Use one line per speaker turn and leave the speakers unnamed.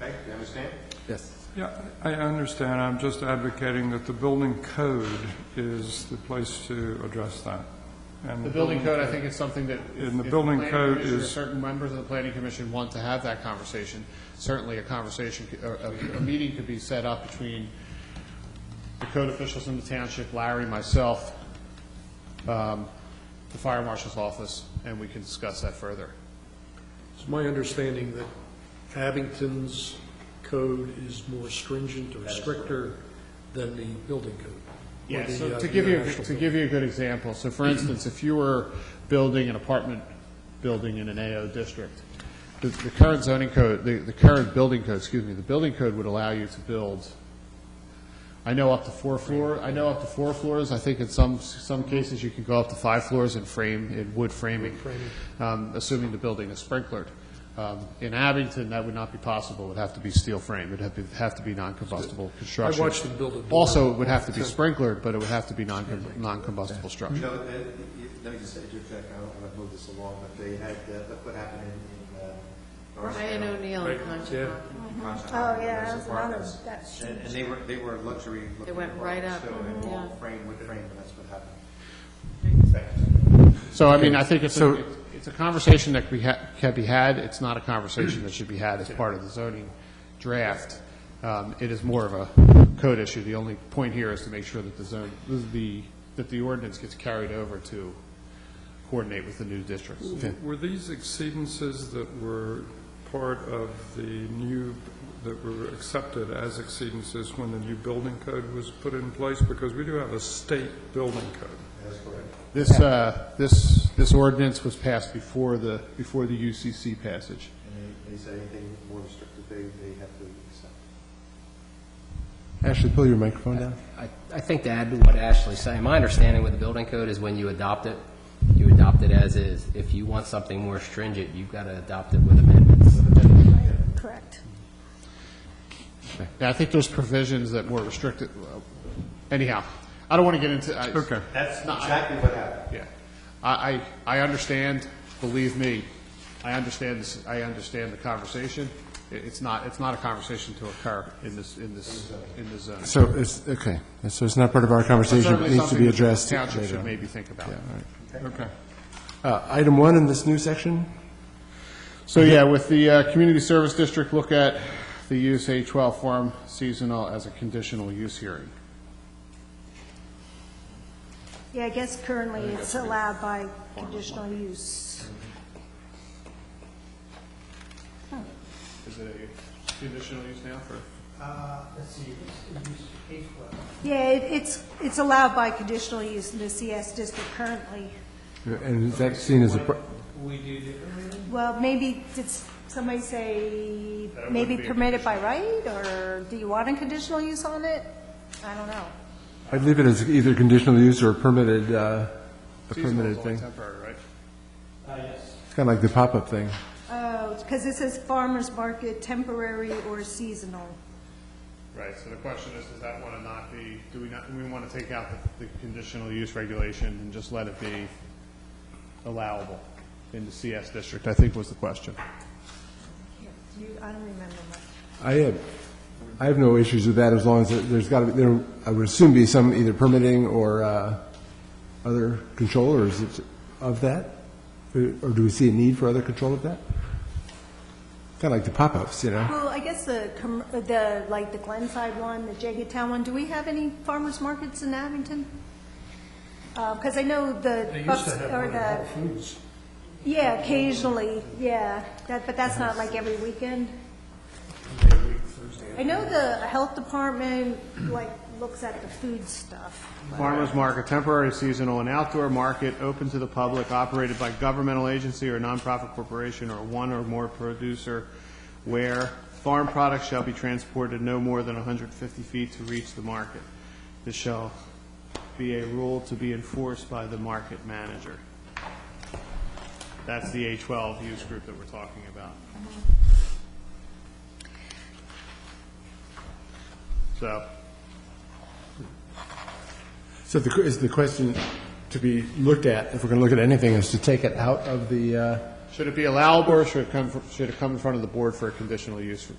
Okay, you understand?
Yes.
Yeah, I understand. I'm just advocating that the building code is the place to address that. And
The building code, I think, is something that. if-
And the
if
building
planning
code
commission or
is-
Certain members of the planning commission want to have that conversation. Certainly, a conversation, c- or a, a meeting could be set up between the code officials in the township, Larry, myself, um, the fire marshal's office, and we can discuss that further.
It's my understanding that Abington's code is more stringent or stricter than the building code. or
Yeah,
the,
so
uh,
to give you,
national
to
code.
give you a good example, so for instance, if you were building an apartment building in an AO district, the, the current zoning code, the, the current building code, excuse me, the building code would allow you to build, I know up to four floor, I know up to four floors, I think in some, some cases you can go up to five floors in frame, in wood framing, um, assuming the building is sprinklered. Um, in Abington, that would not be possible, it would have to be steel frame, it'd have to, have to be non-combustible construction.
watched them build it.
Also, it would have to be sprinklered, but it would have to be non- non-combustible
Mm-hmm.
You
structure.
know, uh, you- let me just interject, I don't want to move this along, but they had, uh, look what happened in, in, uh, Norristown.
Ryan O'Neill Mm-hmm. and Conshohocken.
Concha
Oh,
Island,
yeah, that's
those
another-
apartments.
that's
And, and they were, they were luxury looking.
They went right up,
apartments, So, and
mhm,
all
yeah.
frame, wood frame, and that's what happened.
So, I mean, I think it's, a-
So-
it's- it's a conversation that we ha- can be had, it's not a conversation that should be had as part of the zoning draft. Um, It is more of a code issue, the only point here is to make sure that the zone, the, that the ordinance gets carried over to coordinate with the new districts.
Were these exceedances that were part of the new, that were accepted as exceedances when the new building code was put in place? Because we do have a state building code.
That's correct.
This, uh, this, this ordinance was passed before the, before the UCC passage.
And they, they said anything more restrictive, they, they have to accept.
Ashley, pull your microphone down.
I, I think to add to what Ashley's saying, my understanding with the building code is when you adopt it, you adopt it as is. If you want something more stringent, you've got to adopt it with amendments.
Correct.
Yeah, I think there's provisions that more restricted, well, anyhow, I don't want to get into, I.
Okay.
That's exactly what happened.
Yeah. I, I, I understand, believe me, I understand, this. I understand the conversation. It- It's not, it's not a conversation to occur in this, in this, in this zone.
So it's, okay, so it's not part of our
But
conversation, but
certainly
it needs to
something
be
that the
addressed
Township
later
should
on.
maybe think about.
Okay.
Uh, Item one in this new section,
So, yeah, with the uh, community service district, look at the use A12 farm seasonal as a conditional use hearing.
Yeah, I guess currently it's allowed by conditional use.
Is it a conditional use now for?
Uh, let's see, it's, it's eight foot.
Yeah, it- it's, it's allowed by conditional use in the CS district currently.
and is that seen as a, pr-
We do differently then?
Well, maybe, did somebody say,
That
maybe
would be a
permitted by right, or do you want a conditional use on it? I don't know.
I'd leave it as either conditional use or permitted, uh, a
Seasonal is
permitted
only
thing.
Temporary, right?
Uh, yes.
It's kind of like the pop-up thing.
Oh, because it says farmer's market, temporary or seasonal.
Right, so the question is, does that want to not be, do we not, do we want to take out the, the conditional use regulation and just let it be allowable in the CS district, I think was the question.
You, I don't remember much.
I have, I have no issues with that as long as there- there's got to be, there, I would assume be some either permitting or uh, other control, or is it of that? Or or do we see a need for other control of that? Kind of like the pop-ups, you know?
Well, I guess the, com- the, like the Glenside one, the Jaggedtown one, do we have any farmers markets in Abington? Because I know the
They used
Bucks,
to have
or
one at Whole
the,
Foods.
yeah, occasionally, yeah, that, but that's not like every weekend. I know the health department, like, looks at the food stuff.
Farmers market, temporary, seasonal, and outdoor market, open to the public, operated by governmental agency or nonprofit corporation or one or more producer, where farm products shall be transported no more than 150 feet to reach the market. This shall be a rule to be enforced by the market manager. That's the A12 use group that we're talking about. So,
So the, is the question to be looked at, if we're going to look at anything, is to take it out of the, uh,
Should it be allowable, or should it come, fr- should it come in front of the board for a conditional use